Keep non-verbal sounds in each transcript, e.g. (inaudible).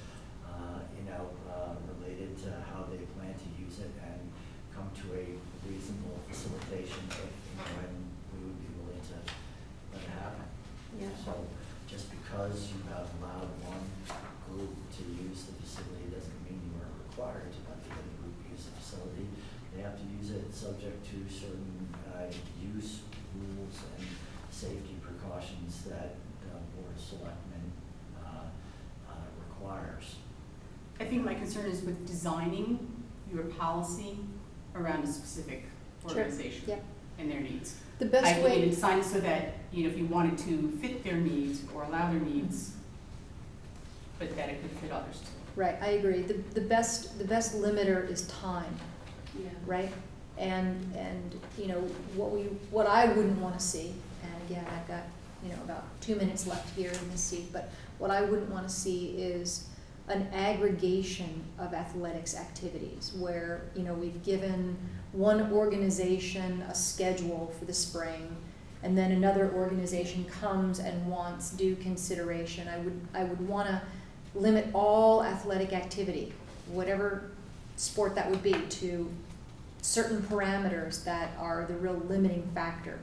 uh, come to a reasonable facilitation if, you know, and we would be willing to let it happen. Yeah. So just because you have allowed one group to use the facility doesn't mean you are required to let the other group use the facility. They have to use it subject to certain, uh, use rules and safety precautions that the board of selectmen, uh, uh, requires. I think my concern is with designing your policy around a specific Sure, organization yep. and their needs. The best I way- mean, design it so that, you know, if you wanted to fit their needs or allow their needs, but that it could fit others too. Right, I agree. The, the best, the best limiter is time, Yeah. right? And, and, you know, what we, what I wouldn't wanna see, and again, I've got, you know, about two minutes left here in this seat, but what I wouldn't wanna see is an aggregation of athletics activities where, you know, we've given one organization a schedule for the spring, and then another organization comes and wants due consideration. I would, I would wanna limit all athletic activity, whatever sport that would be, to certain parameters that are the real limiting factor.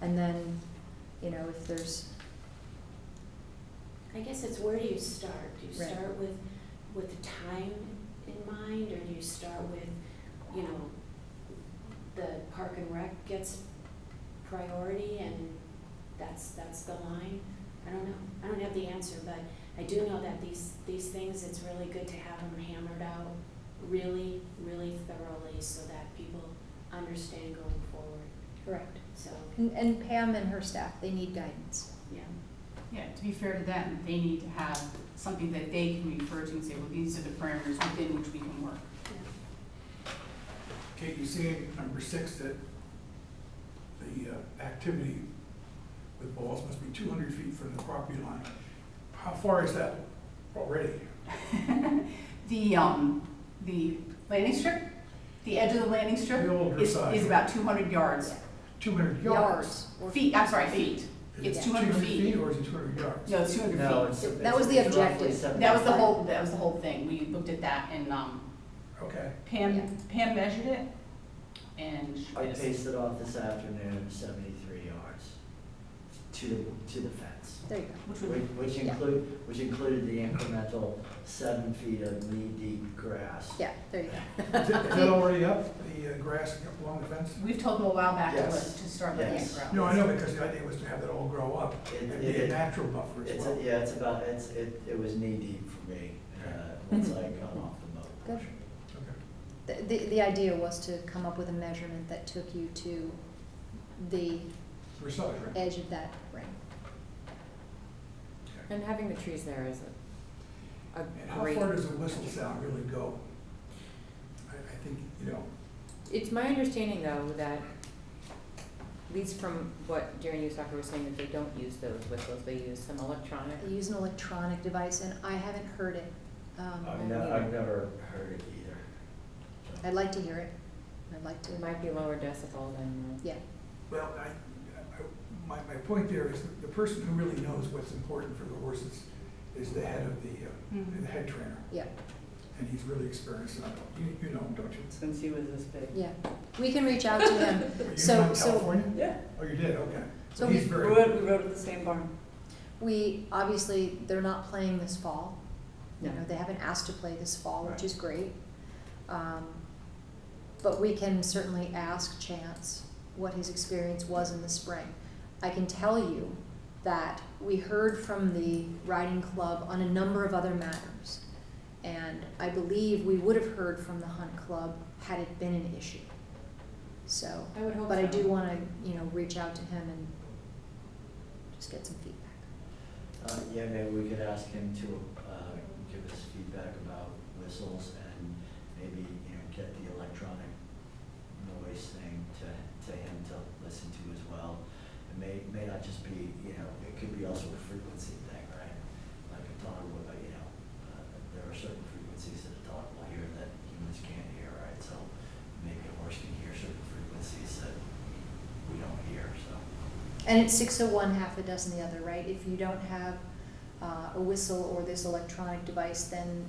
And then, you know, if there's, I guess it's where do you start? Do you Right. start with, with the time in mind, or do you start with, you know, the park and rec gets priority and that's, that's the line? I don't know, I don't have the answer, but I do know that these, these things, it's really good to have them hammered out really, really thoroughly so that people understand going forward, correct. so, And, and Pam and her staff, they need guidance. yeah. Yeah, to be fair to them, they need to have something that they can refer to and say, well, these are the parameters within which we can work. (laughs) Kate, you see in number six that the uh, activity with balls must be two hundred feet from the property line. How far is that already? The, um, the landing strip, the edge of the landing strip The older is, side. is about two hundred yards. Two hundred yards? Yards. or- Feet, I'm sorry, feet. It's Is it two hundred feet. or is it two hundred yards? No, it's two hundred feet. No, it's. That was the it's roughly objective. seven- That was the whole, that was the whole thing, we looked at that and, um, (laughs) Okay, Yeah. Pam, Pam measured it, and she I made us- paced it off this afternoon, seventy-three yards to, the to the fence. There you go. which Which would, which Yeah. include, which included the incremental seven feet of knee-deep grass. Yeah, there you (laughs) is it- is go. that already up, the uh, grass along the fence? we've told them a while back to, let- Yes. to start letting it Yes. grow. No, I know, because the idea was to have it all grow up It- and it- be a natural buffer as It's, well. yeah, it's about, it's, it, it was knee-deep for me, uh, once (laughs) I got off the moat Good. portion. The, Okay. the, the idea was to come up with a measurement that took you to the Precise, right? edge of that ring. Okay. And having the trees there is a, And a how great. far does a whistle sound really go? I, I think, you know, It's my understanding though that, at least from what Darren Usacker was saying, that they don't use those whistles, they use some electronic. They use an electronic device, and I haven't heard it. Um, I've Um, never, yeah. I've never heard it either. So- I'd like to hear it. I'd like to, It might be lower decibel than, yeah, Well, I, I, my, my point there is that the person who really knows what's important for the horses is the head of the, uh, Mhm. the head trainer, yeah, and he's really experienced, and I don't- you, you know him, don't you? Since he was this big. yeah. We can reach out to him. Were you So- from so- California? Yeah, Oh, you did, okay. So He's we- we very, rode, we rode at the same barn. We, obviously, they're not playing this fall. You No. know, they haven't asked to play this fall, which Right. is great. Um, But we can certainly ask Chance what his experience was in the spring. I can tell you that we heard from the riding club on a number of other matters. And I believe we would have heard from the hunt club had it been an issue. So, I would hope but I so. do wanna, you know, reach out to him and just get some feedback. Uh, yeah, maybe we could ask him to, uh, give us feedback about whistles and maybe, you know, get the electronic noise thing to, to him to listen to as well. It may, may not just be, you know, it could be also a frequency thing, right? Like a dog would, uh, you know, uh, there are certain frequencies that a dog will hear that humans can't hear, right? So maybe a horse can hear certain frequencies that we don't hear, so. And it's six of one, half a dozen the other, right? If you don't have uh, a whistle or this electronic device, then